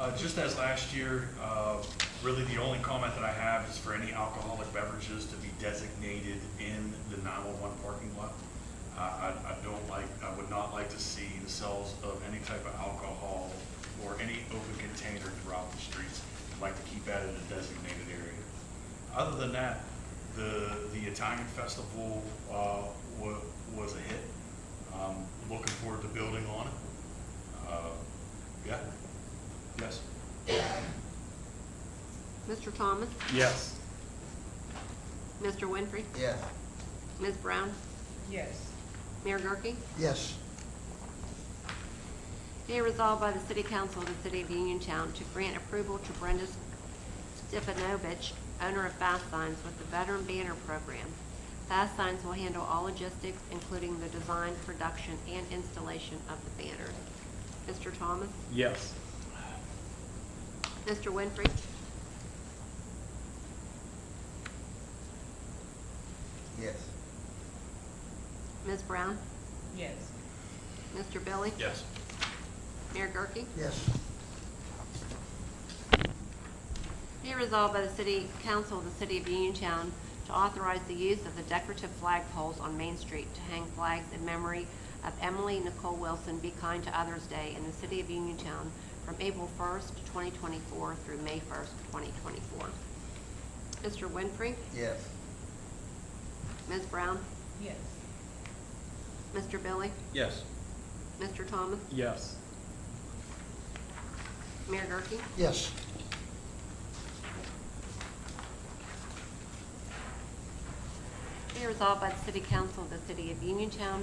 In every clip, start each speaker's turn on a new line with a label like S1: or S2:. S1: Uh, Just as last year, uh, really the only comment that I have is for any alcoholic beverages to be designated in the 911 parking lot. I- I I don't like, I would not like to see the sales of any type of alcohol or any open container throughout the streets. I'd like to keep that in a designated area. Other than that, the, the Italian festival uh, wa- was a hit. Um, Looking forward to building on it. Uh, Yeah, yes.
S2: Mr. Thomas?
S1: Yes.
S2: Mr. Winfrey?
S3: Yes.
S2: Ms. Brown?
S4: yes,
S2: Mayor Gurke?
S3: Yes.
S2: Be it resolved by the City Council of the City of Uniontown to grant approval to Brenda Stefanovich, owner of Fast Signs, with the Veteran Banner Program. Fast Signs will handle all logistics, including the design, production, and installation of the banners. Mr. Thomas?
S5: Yes.
S2: Mr. Winfrey?
S3: Yes.
S2: Ms. Brown?
S4: yes,
S2: Mr. Billy?
S1: Yes.
S2: Mayor Gurke?
S3: Yes.
S2: Be resolved by the City Council of the City of Uniontown to authorize the use of the decorative flag poles on Main Street to hang flags in memory of Emily Nicole Wilson Be Kind to Others Day in the City of Uniontown from April 1st, 2024 through May 1st, 2024. Mr. Winfrey?
S3: Yes.
S2: Ms. Brown?
S4: yes,
S2: Mr. Billy?
S5: Yes.
S2: Mr. Thomas?
S5: Yes.
S2: Mayor Gurke?
S3: Yes.
S2: Be resolved by the City Council of the City of Uniontown,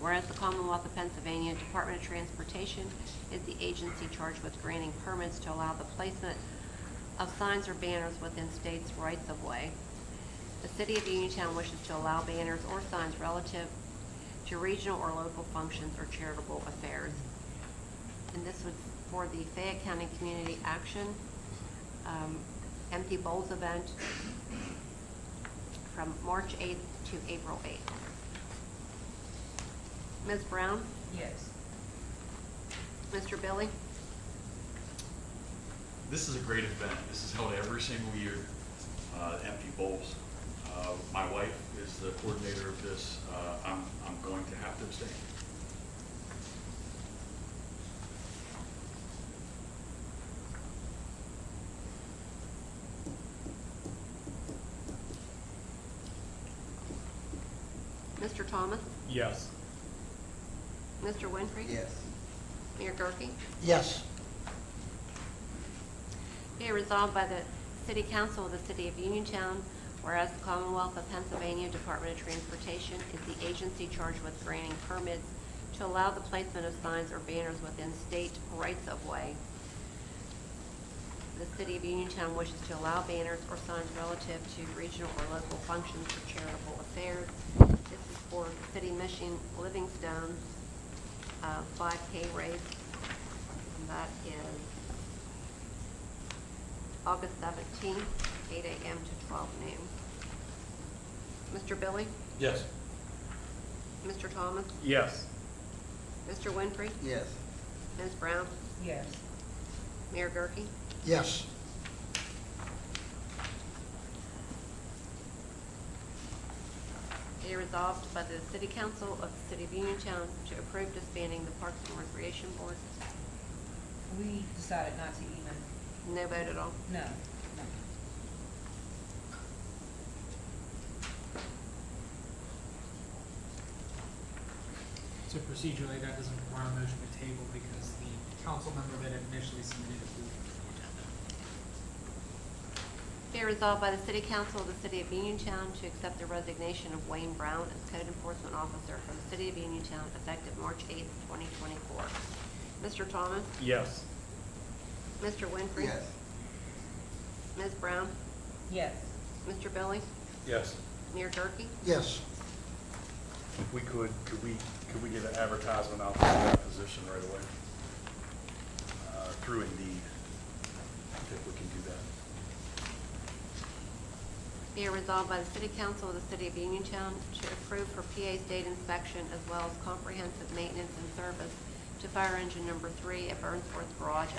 S2: whereas the Commonwealth of Pennsylvania Department of Transportation is the agency charged with granting permits to allow the placement of signs or banners within states' rights of way. The City of Uniontown wishes to allow banners or signs relative to regional or local functions or charitable affairs. And this was for the Fayette County Community Action um, Empty Bowls event from March 8th to April 8th. Ms. Brown?
S4: yes,
S2: Mr. Billy?
S1: This is a great event. This is held every single year, uh, Empty Bowls. Uh, My wife is the coordinator of this. Uh, I'm, I'm going to have to abstain.
S2: Mr. Thomas?
S5: Yes.
S2: Mr. Winfrey?
S3: Yes.
S2: Mayor Gurke?
S3: Yes.
S2: Be it resolved by the City Council of the City of Uniontown, whereas the Commonwealth of Pennsylvania Department of Transportation is the agency charged with granting permits to allow the placement of signs or banners within state rights of way. The City of Uniontown wishes to allow banners or signs relative to regional or local functions or charitable affairs. This is for City Mission Livingstone, uh, 5K race. And that is August 17th, 8 a.m. to 12 noon. Mr. Billy?
S5: Yes.
S2: Mr. Thomas?
S5: Yes.
S2: Mr. Winfrey?
S3: Yes.
S2: Ms. Brown?
S4: yes,
S2: Mayor Gurke?
S3: Yes.
S2: Be resolved by the City Council of the City of Uniontown to approve disbanding the Parks and Recreation Board.
S4: we decided not to even,
S2: No vote at all.
S4: no, no,
S6: So procedurally, that doesn't require a motion to table because the council member that initially submitted approved it for the agenda.
S2: Be resolved by the City Council of the City of Uniontown to accept the resignation of Wayne Brown as Code Enforcement Officer from the City of Uniontown effective March 8th, 2024. Mr. Thomas?
S5: Yes.
S2: Mr. Winfrey?
S3: Yes.
S2: Ms. Brown?
S4: yes,
S2: Mr. Billy?
S5: Yes.
S2: Mayor Gurke?
S3: Yes.
S1: If we could, could we, could we get an advertisement out for that position right away? Uh, Through Indeed, if we can do that.
S2: Be it resolved by the City Council of the City of Uniontown to approve for PA state inspection as well as comprehensive maintenance and service to fire engine number three at Burnsworth Garage